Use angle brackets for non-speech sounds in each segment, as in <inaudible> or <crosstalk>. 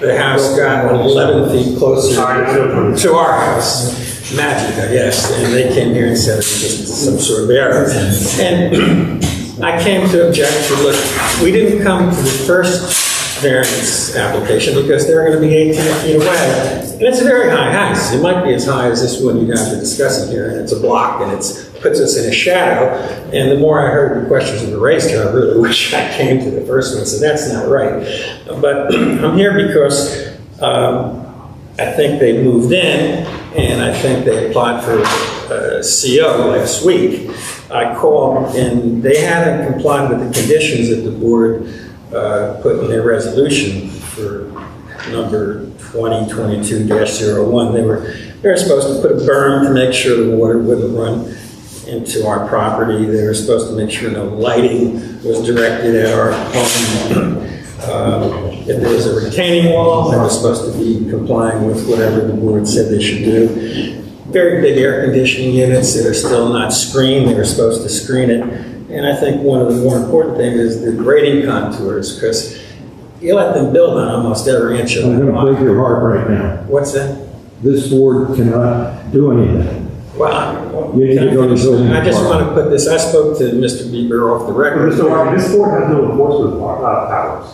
The house got 11 feet closer to our house. Magic, I guess. And they came here and said it was just some sort of error. And <clears throat> I came to object to, look, we didn't come to the first variance application because they're going to be 18 feet away. And it's a very high house. It might be as high as this one you guys are discussing here. And it's a block and it's, puts us in a shadow. And the more I heard the questions that were raised here, I really <laughs> wish I came to the first one. So that's not right. But <clears throat> I'm here because um, I think they moved in, and I think they applied for uh, CO last week. I called, and they hadn't complied with the conditions that the board uh, put in their resolution for number 2022-01. They were, they were supposed to put a berm to make sure the water wouldn't run into our property. They were supposed to make sure no lighting was directed at our home. Um, If there was a retaining wall, they were supposed to be complying with whatever the board said they should do. Very big air conditioning units that are still not screened, they were supposed to screen it. And I think one of the more important things is the grading contours, because you let them build on almost every inch of I'm the going to break lot. your heart right now. What's that? This board cannot do anything. Well, I- You need to go to the building I just want department. to put this, I spoke to Mr. Bieber off the record. Mr. Wright, um, this board has no enforcement pow- uh, powers.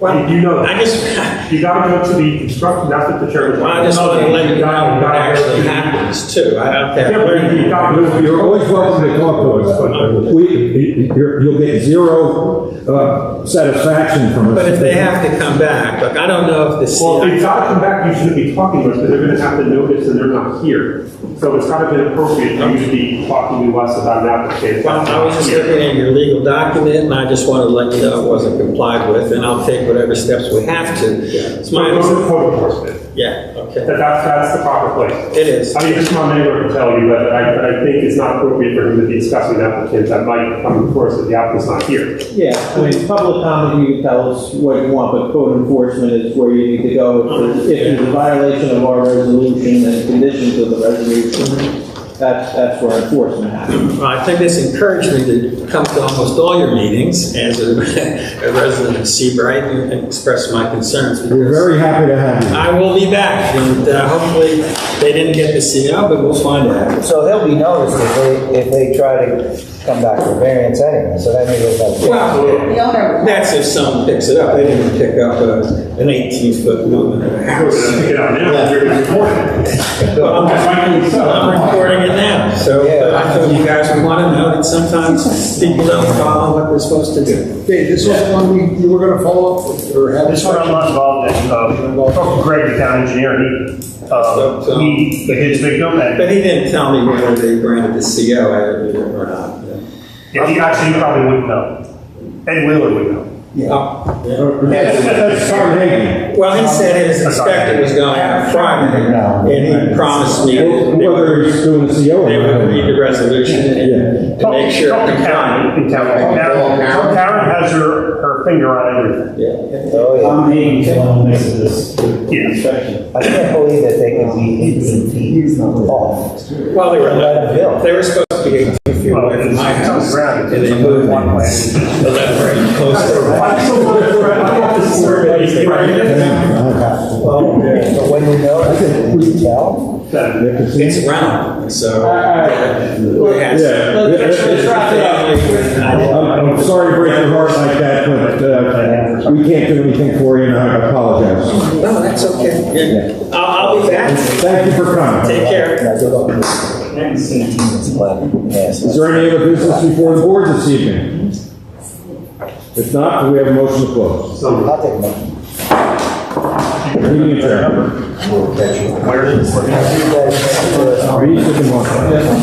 Well, You know I that. just, You gotta go to the construction, that's what the chairman. Well, I just want to let you know what actually happens too. I don't Yeah, but you- you care. gotta go to You're your always welcome to talk to us, but uh, we, you're- you'll get zero uh, satisfaction from us. But if they have to come back, like, I don't know if the Well, CEO, if they gotta come back, you shouldn't be talking to us, because they're gonna have to notice and they're not here. So it's kind of inappropriate for you to be talking to us about an application. well, I was just looking at your legal document and I just wanted to let you know it wasn't complied with and I'll take whatever steps we have to. It's So my, go understa- to code enforcement, yeah, okay, that, that's, that's the proper place. it is. I mean, just my neighbor can tell you, but I, but I think it's not appropriate for him to be discussing applicants that might come before us if the applicant's not here. Yeah, I mean, public comment, you can tell us what you want, but code enforcement is where you need to go. If there's- If there's a violation of our resolution and conditions of the resolution, that's, that's where enforcement happens. Well, I think this encouraged me to come to almost all your meetings as a <laughs> a resident of Seabright and express my concerns. We're because- very happy to have you. I will be back, and uh, hopefully they didn't get the CO, but we'll find out. So they'll be noticed if they, if they try to come back for variance anyway, so that may go back. Well, The owner, that's if someone picks it up, they didn't pick up uh, an 18-foot movement of a We're <laughs> gonna house. pick it up now, we're gonna report it. But I'm I'm recording it now, so uh, I thought you guys would want to know that sometimes people don't follow what they're supposed to do. Okay, this is one we, you were gonna follow up with, or have. This one I'm not involved in, uh, Greg, the town engineer, he, uh, he, his, they don't, But he didn't tell me whether they granted the CO or not. if he actually probably wouldn't know. Ed Wheeler would know. Oh, yeah. That's that's Tom Hagen. Well, he said his inspector was going out Friday, and he promised me. that they Whether would- he's doing CO They would or read the not. resolution and and make sure Talk it to complied. Karen in town. Karen Karen has her, her finger on everything. Yeah. Oh, yeah. I'm being, I'm making this Yes. I can't believe that they can be eighteen feet off. Well, they were, eleven. they were supposed to be eighteen feet Well, away from it's my on the house, ground. and they moved One way. eleven feet closer. I still want to, I want to survey, Oh, Well, but when you know, you can tell. It's round, so. Yeah, so- Yeah, let's- let's wrap it I'm I'm sorry to break your heart like that, but uh, we can't do anything for you, and I apologize. No, that's okay. Yeah. I'll, I'll be back. Thank you for coming. Take care. Now, good luck. Yes. Is there any other business before the board this evening? If not, do we have a motion to close? I'll take one. Meeting adjourned. You guys, uh, Reese, you can walk.